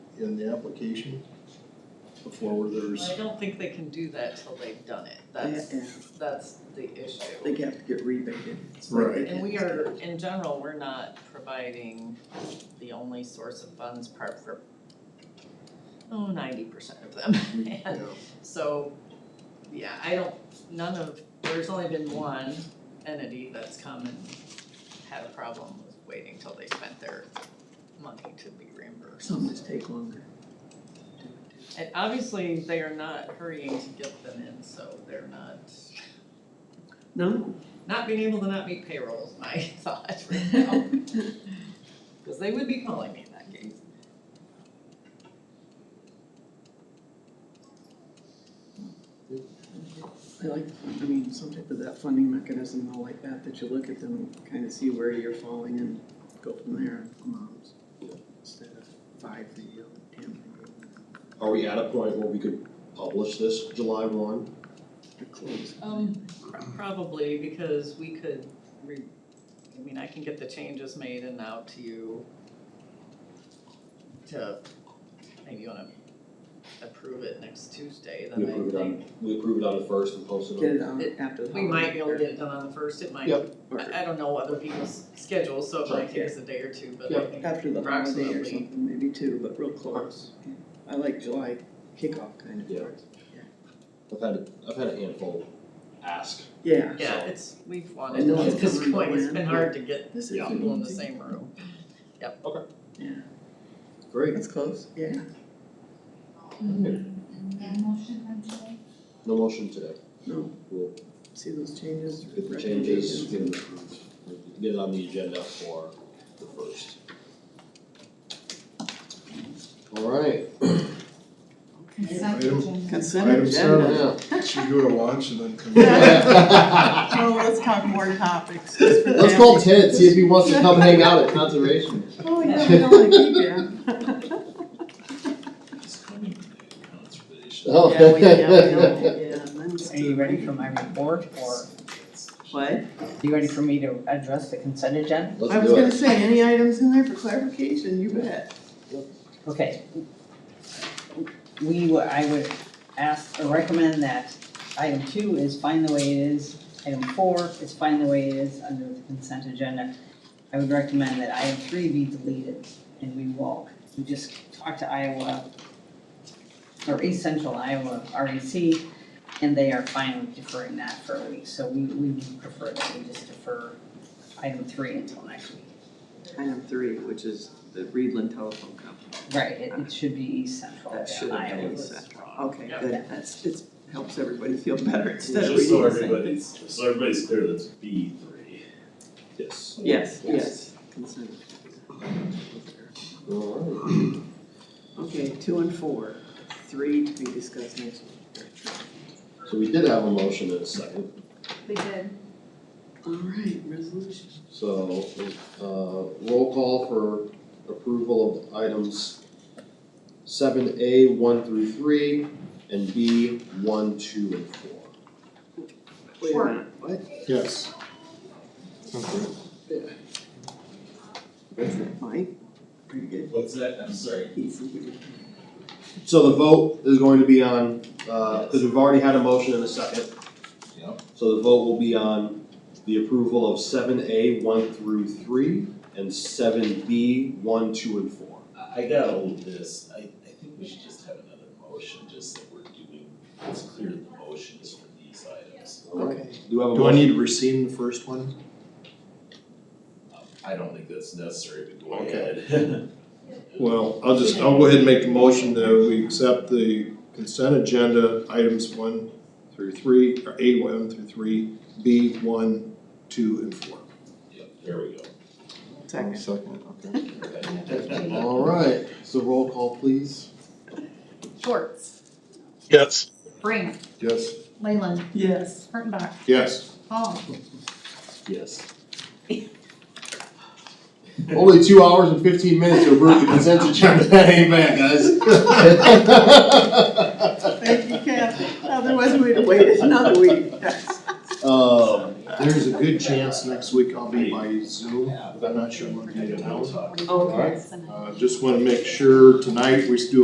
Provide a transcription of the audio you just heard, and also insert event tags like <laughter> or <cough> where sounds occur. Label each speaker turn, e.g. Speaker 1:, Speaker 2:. Speaker 1: in the application before there's,
Speaker 2: I don't think they can do that till they've done it, that's,
Speaker 3: Yeah,
Speaker 2: that's the issue.
Speaker 3: They have to get rebated. so
Speaker 1: Right.
Speaker 3: they
Speaker 2: And we
Speaker 3: can't
Speaker 2: are,
Speaker 3: start.
Speaker 2: in general, we're not providing the only source of funds part for, oh, ninety percent of them.
Speaker 1: you
Speaker 3: Mm-hmm.
Speaker 2: And
Speaker 1: know,
Speaker 2: <laughs> So, yeah, I don't, none of, there's only been one entity that's come and had a problem with waiting till they spent their money to be reimbursed.
Speaker 3: Some just take longer.
Speaker 2: And obviously, they are not hurrying to get them in, so they're not,
Speaker 3: <laughs> No,
Speaker 2: not being able to not meet payroll is my <laughs> thought right now. Cause they would be calling me in that case.
Speaker 3: I like, I mean, some type of that funding mechanism, and all like that, that you look at them, kind of see where you're falling and go from there, moms. Instead of five that you, ten that
Speaker 1: Are we at a point where we could publish this July one?
Speaker 3: you, close.
Speaker 2: Um, probably, because we could re, I mean, I can get the changes made and out to you to, maybe you wanna approve it next Tuesday,
Speaker 1: We
Speaker 2: then I
Speaker 1: approve it on,
Speaker 2: think,
Speaker 1: we approve it on the first and post it on.
Speaker 3: Get it out after the
Speaker 2: we might be able to
Speaker 3: holiday,
Speaker 2: get it done on the first, it might,
Speaker 1: Yep.
Speaker 3: Or
Speaker 2: I, I don't know other people's schedules, so it
Speaker 1: Sure.
Speaker 2: might take us a day or two, but I
Speaker 1: Yep.
Speaker 2: think
Speaker 3: after the holiday or
Speaker 2: approximately.
Speaker 3: something, maybe two, but real close. Yeah. I like July kickoff kind of.
Speaker 1: Yeah. I've had, I've had a handful ask.
Speaker 3: Yeah,
Speaker 2: Yeah,
Speaker 1: So-
Speaker 2: it's, we've
Speaker 3: I
Speaker 2: wanted,
Speaker 3: know
Speaker 2: at
Speaker 3: it's
Speaker 2: this
Speaker 3: coming
Speaker 2: point, it's
Speaker 3: in.
Speaker 2: been hard to get
Speaker 3: this is
Speaker 1: Yeah.
Speaker 2: people in the
Speaker 3: easy.
Speaker 2: same room,
Speaker 3: Yeah,
Speaker 1: Great.
Speaker 3: that's close, yeah.
Speaker 1: No motion today.
Speaker 3: No.
Speaker 1: We'll
Speaker 3: See those changes?
Speaker 1: get the changes, get it approved, get it on the agenda for the first. All right.
Speaker 4: Consent
Speaker 5: Item-
Speaker 4: agenda.
Speaker 3: Consent
Speaker 5: Item
Speaker 3: agenda.
Speaker 5: seven.
Speaker 1: Yeah.
Speaker 5: Should we go to lunch and then come back?
Speaker 3: <laughs>
Speaker 1: Let's
Speaker 4: Oh, let's talk more topics. just for that.
Speaker 1: call Ted, see if he wants to come hang out at conservation.
Speaker 3: Oh, yeah, we don't wanna keep <laughs> you.
Speaker 1: Oh.
Speaker 3: Yeah, we,
Speaker 1: <laughs>
Speaker 3: yeah, we don't, yeah, then it's
Speaker 6: Are you ready for my report or
Speaker 3: What?
Speaker 6: are you ready for me to address the consent agenda?
Speaker 3: I
Speaker 1: Let's
Speaker 3: was
Speaker 1: do
Speaker 3: gonna
Speaker 1: it.
Speaker 3: say, any items in there for clarification, you bet.
Speaker 6: Okay. We, were- I would ask or recommend that item two is fine the way it is. Item four is fine the way it is under the consent agenda. I would recommend that item three be deleted and we walk. We just talked to Iowa or East Central Iowa REC and they are fine with deferring that for a week. So we, we would prefer that we just defer item three until next week.
Speaker 3: Item three, which is the Reedland Telephone Company.
Speaker 6: Right, it, it should be East Central,
Speaker 3: That should
Speaker 6: yeah,
Speaker 3: have
Speaker 6: Iowa
Speaker 3: been
Speaker 6: was
Speaker 3: East
Speaker 6: wrong.
Speaker 3: Okay,
Speaker 2: Yeah.
Speaker 3: good, that's, it helps everybody feel better instead of
Speaker 7: Just so
Speaker 3: reading the same thing.
Speaker 7: everybody's, so everybody's clear, that's B three.
Speaker 1: Yes.
Speaker 3: Yes, yes, consent.
Speaker 1: All right.
Speaker 3: Okay, two and four, three to be discussed next week.
Speaker 1: So we did have a motion in a second,
Speaker 4: We did.
Speaker 3: All right, resolution.
Speaker 1: so, uh, roll call for approval of items seven A, one through three, and B, one, two, and four.
Speaker 3: Wait a
Speaker 4: Sure.
Speaker 3: minute, what?
Speaker 1: Yes.
Speaker 3: Mike, pretty good.
Speaker 7: What's that? I'm sorry.
Speaker 3: He's-
Speaker 1: So the vote is going to be on, uh, cause we've already had a motion in a second.
Speaker 7: Yep.
Speaker 1: So the vote will be on the approval of seven A, one through three, and seven B, one, two, and four.
Speaker 7: I, I got all of this, I, I think we should just have another motion, just that we're doing, it's clear that the motion is for these items.
Speaker 3: Okay.
Speaker 1: Do you have a
Speaker 5: Do I
Speaker 1: motion?
Speaker 5: need to rescind the first one?
Speaker 7: Um, I don't think that's necessary, but go
Speaker 1: Okay.
Speaker 7: ahead. <laughs>
Speaker 5: Well, I'll just, I'll go ahead and make the motion that we accept the consent agenda, items one through three, or A one through three, B one, two, and four.
Speaker 7: Yep, there we go.
Speaker 3: Second.
Speaker 5: Second,
Speaker 3: <laughs>
Speaker 5: okay.
Speaker 7: Okay.
Speaker 1: All right, so roll call, please.
Speaker 4: Schwartz,
Speaker 8: Yes.
Speaker 4: Brant,
Speaker 5: Yes.
Speaker 4: Leyland,
Speaker 3: Yes.
Speaker 4: Kurttenbach,
Speaker 5: Yes.
Speaker 4: Hall.
Speaker 1: Yes. Only two hours and fifteen minutes to approve the consent agenda, <laughs> amen, guys.
Speaker 3: Thank you, Kathy. Otherwise, we'd have waited another week.
Speaker 1: Um,
Speaker 5: There's a good chance next week I'll be by Zoom, but I'm not sure I'm gonna be in town.
Speaker 4: Oh,
Speaker 7: Talk.
Speaker 5: Uh, just wanna make sure tonight we still